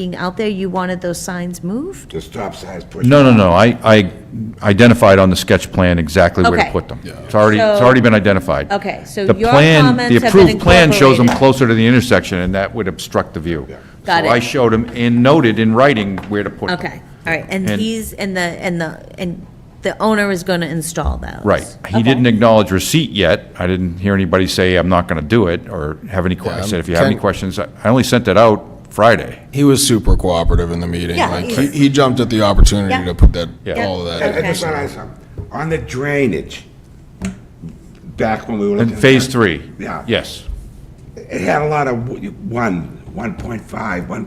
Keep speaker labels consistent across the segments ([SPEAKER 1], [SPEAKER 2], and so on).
[SPEAKER 1] being out there, you wanted those signs moved?
[SPEAKER 2] The stop sign's pushed.
[SPEAKER 3] No, no, no, I, I identified on the sketch plan exactly where
[SPEAKER 1] Okay.
[SPEAKER 3] to put them. It's already, it's
[SPEAKER 1] So-
[SPEAKER 3] already been identified.
[SPEAKER 1] Okay, so
[SPEAKER 3] The
[SPEAKER 1] your
[SPEAKER 3] plan-
[SPEAKER 1] comments have been
[SPEAKER 3] The approved plan shows them
[SPEAKER 1] incorporated.
[SPEAKER 3] closer to the intersection, and that would obstruct the view.
[SPEAKER 1] Got
[SPEAKER 3] So I
[SPEAKER 1] it.
[SPEAKER 3] showed him and noted in writing where to put them.
[SPEAKER 1] Okay, all right, and
[SPEAKER 3] And-
[SPEAKER 1] he's, and the, and the, and the owner is going to install those?
[SPEAKER 3] Right. He
[SPEAKER 1] Okay.
[SPEAKER 3] didn't acknowledge receipt yet. I didn't hear anybody say, I'm not going to do it, or have any, que- I said, if you have any
[SPEAKER 4] Ken-
[SPEAKER 3] questions, I I only sent it out Friday.
[SPEAKER 4] He was super cooperative in the meeting.
[SPEAKER 1] Yeah,
[SPEAKER 4] Like, he,
[SPEAKER 1] he's-
[SPEAKER 4] he jumped at the opportunity
[SPEAKER 1] Yeah.
[SPEAKER 4] to put that,
[SPEAKER 3] Yeah.
[SPEAKER 4] all of
[SPEAKER 2] And
[SPEAKER 4] that.
[SPEAKER 2] and
[SPEAKER 1] Okay.
[SPEAKER 2] just realize something, on the drainage, back when we were.
[SPEAKER 3] In
[SPEAKER 2] looking-
[SPEAKER 3] Phase 3?
[SPEAKER 2] Yeah.
[SPEAKER 3] Yes.
[SPEAKER 2] It had a lot of w- one, 1.5, one,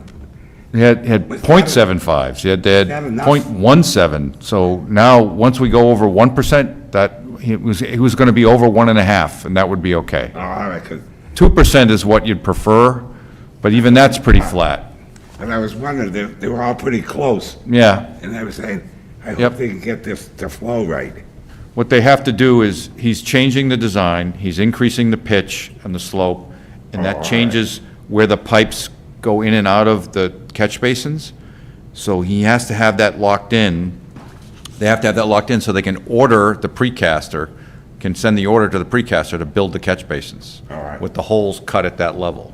[SPEAKER 3] They had, had
[SPEAKER 2] Was that
[SPEAKER 3] point
[SPEAKER 2] a-
[SPEAKER 3] seven fives, they had, they had
[SPEAKER 2] that enough?
[SPEAKER 3] point one seven, so now, once we go over one percent, that, it was, it was gonna be over one and a half, and that would be okay.
[SPEAKER 2] oh, all right, because,
[SPEAKER 3] Two percent is what you'd prefer, but even that's pretty flat,
[SPEAKER 2] and I was wondering, they, they were all pretty close.
[SPEAKER 3] yeah.
[SPEAKER 2] And I was saying, I hope
[SPEAKER 3] Yep.
[SPEAKER 2] they can get this to flow right.
[SPEAKER 3] What they have to do is, he's changing the design, he's increasing the pitch and the slope, and that changes where the pipes go in and out of the catch basins. So he has to have that locked in. They have to have that locked in so they can order the precaster, can send the order to the precaster to build the catch basins.
[SPEAKER 2] All right.
[SPEAKER 3] With the holes cut at that level.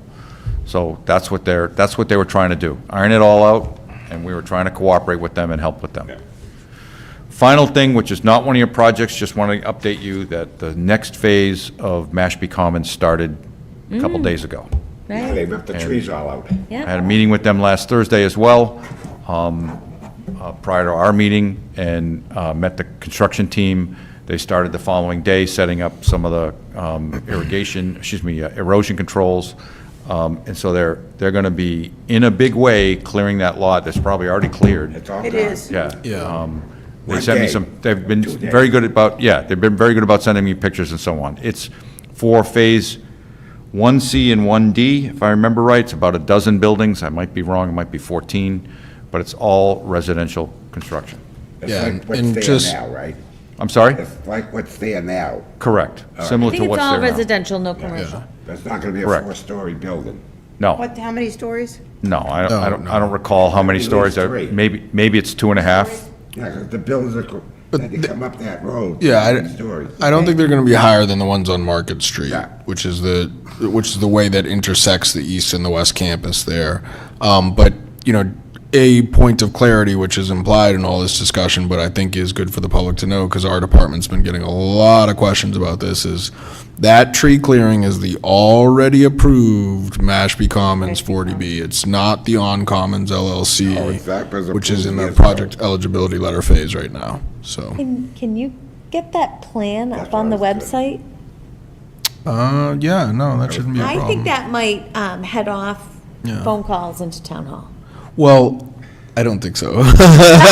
[SPEAKER 3] So that's what they're, that's what they were trying to do, iron it all out, and we were trying to cooperate with them and help with them. Final thing, which is not one of your projects, just want to update you that the next phase of Mashpee Commons started a couple days ago.
[SPEAKER 2] Now
[SPEAKER 1] Right,
[SPEAKER 2] They ripped the trees all out.
[SPEAKER 3] I
[SPEAKER 1] yeah,
[SPEAKER 3] had a meeting with them last Thursday as well, um, uh, prior to our meeting, and uh, met the construction team. They started the following day, setting up some of the um, irrigation, excuse me, uh, erosion controls. Um, And so they're, they're going to be, in a big way, clearing that lot that's probably already cleared.
[SPEAKER 2] It's all
[SPEAKER 5] It
[SPEAKER 2] gone.
[SPEAKER 5] is.
[SPEAKER 3] Yeah.
[SPEAKER 4] Yeah.
[SPEAKER 3] They
[SPEAKER 2] One
[SPEAKER 3] sent me
[SPEAKER 2] day.
[SPEAKER 3] some, they've been
[SPEAKER 2] days.
[SPEAKER 3] very good about, yeah, they've been very good about sending me pictures and so on. It's for Phase 1C and 1D, if I remember right, it's about a dozen buildings, I might be wrong, it might be 14, but it's all residential construction.
[SPEAKER 2] It's
[SPEAKER 4] Yeah,
[SPEAKER 2] like
[SPEAKER 4] and-
[SPEAKER 2] what's
[SPEAKER 4] and
[SPEAKER 2] there
[SPEAKER 4] just-
[SPEAKER 2] now, right?
[SPEAKER 3] I'm sorry?
[SPEAKER 2] It's like what's there now.
[SPEAKER 3] Correct,
[SPEAKER 1] I
[SPEAKER 3] similar to
[SPEAKER 1] think it's
[SPEAKER 3] what's
[SPEAKER 1] all
[SPEAKER 3] there now.
[SPEAKER 1] residential, no commercial.
[SPEAKER 2] That's not going to be a
[SPEAKER 3] Correct.
[SPEAKER 2] four-story building.
[SPEAKER 3] No,
[SPEAKER 5] What, how many stories?
[SPEAKER 3] no, I don't, I
[SPEAKER 4] No,
[SPEAKER 3] don't,
[SPEAKER 4] no.
[SPEAKER 3] I don't recall how many
[SPEAKER 2] At least
[SPEAKER 3] stories, there-
[SPEAKER 2] three.
[SPEAKER 3] maybe, maybe it's two and a half.
[SPEAKER 2] Yeah, 'cause the buildings are, gr- they come up that road.
[SPEAKER 4] Yeah, I-
[SPEAKER 2] three stories.
[SPEAKER 4] I don't think they're going to be higher than the ones on Market Street,
[SPEAKER 2] Yeah.
[SPEAKER 4] which is the, which is the way that intersects the east and the west campus there. Um, but, you know, a point of clarity, which is implied in all this discussion, but I think is good for the public to know, because our department's been getting a lot of questions about this, is that tree clearing is the already approved Mashpee Commons 40B. It's not the On Commons LLC,
[SPEAKER 2] Oh, in fact, there's a
[SPEAKER 4] which is in the
[SPEAKER 2] previous one.
[SPEAKER 4] project eligibility letter phase right now, so.
[SPEAKER 1] Can, can you get that plan
[SPEAKER 2] That's
[SPEAKER 1] up
[SPEAKER 2] what
[SPEAKER 1] on the
[SPEAKER 2] I was
[SPEAKER 1] website?
[SPEAKER 4] Uh, yeah, no, that shouldn't be a problem.
[SPEAKER 1] I think that might um, head off
[SPEAKER 4] Yeah.
[SPEAKER 1] phone calls into town hall.
[SPEAKER 4] Well, I don't think so.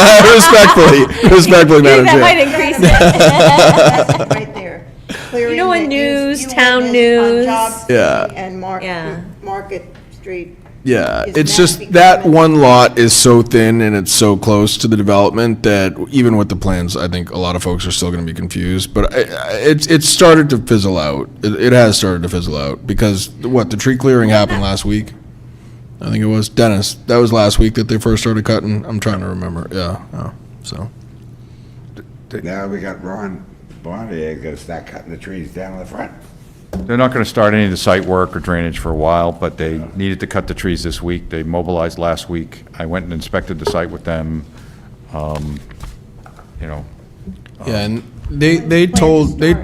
[SPEAKER 4] respectfully, respectfully, Madam
[SPEAKER 1] That might
[SPEAKER 4] Chair.
[SPEAKER 1] increase it.
[SPEAKER 5] Right there. Clearing
[SPEAKER 1] know, in
[SPEAKER 5] that you-
[SPEAKER 1] news,
[SPEAKER 5] you
[SPEAKER 1] town
[SPEAKER 5] witnessed
[SPEAKER 1] news.
[SPEAKER 5] On Job Street
[SPEAKER 4] Yeah.
[SPEAKER 5] and Mark,
[SPEAKER 1] Yeah.
[SPEAKER 5] Market Street.
[SPEAKER 4] Yeah,
[SPEAKER 5] Is
[SPEAKER 4] it's
[SPEAKER 5] that
[SPEAKER 4] just
[SPEAKER 5] because
[SPEAKER 4] that
[SPEAKER 5] of-
[SPEAKER 4] one lot is so thin and it's so close to the development that even with the plans, I think a lot of folks are still going to be confused. But I- I- it's it's started to fizzle out. It, it has started to fizzle out because what the tree clearing happened last week. I think it was Dennis. That was last week that they first started cutting. I'm trying to remember. Yeah. Oh, so
[SPEAKER 2] Now we got Ron Bonnier going to start cutting the trees down in the front.
[SPEAKER 3] They're not going to start any of the site work or drainage for a while, but they needed to cut the trees this week. They mobilized last week. I went and inspected the site with them. Um, You know,
[SPEAKER 4] yeah, and they they told they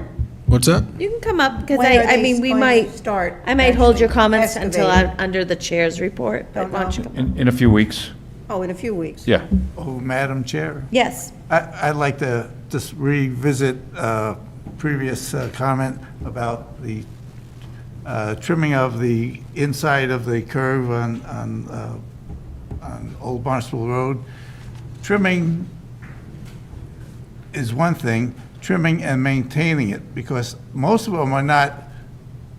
[SPEAKER 4] what's that?
[SPEAKER 1] You can come up, because
[SPEAKER 5] When are
[SPEAKER 1] I, I
[SPEAKER 5] they
[SPEAKER 1] mean, we
[SPEAKER 5] going to
[SPEAKER 1] might,
[SPEAKER 5] start
[SPEAKER 1] I might hold your
[SPEAKER 5] actually
[SPEAKER 1] comments until,
[SPEAKER 5] excavating?
[SPEAKER 1] I'm under the chair's report, but
[SPEAKER 5] Don't
[SPEAKER 1] why don't you
[SPEAKER 5] know.
[SPEAKER 1] come-
[SPEAKER 3] in, in a few weeks,
[SPEAKER 5] Oh, in a few weeks.
[SPEAKER 3] yeah.
[SPEAKER 6] Oh, Madam Chair,
[SPEAKER 1] Yes,
[SPEAKER 6] I- I'd like to just revisit a previous uh, comment about the uh, trimming of the inside of the curve on, on, uh, on Old Barnstable Road. Trimming is one thing, trimming and maintaining it, because most of them are not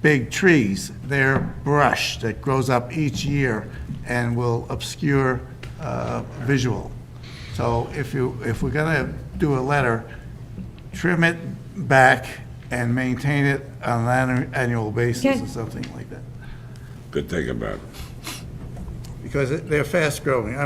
[SPEAKER 6] big trees. They're brush that grows up each year and will obscure uh, visual. So if you, if we're going to do a letter, trim it back and maintain it on an annu- annual basis
[SPEAKER 1] Okay.
[SPEAKER 6] or something like that.
[SPEAKER 2] Good thing about it.
[SPEAKER 6] because it- they're fast-growing. I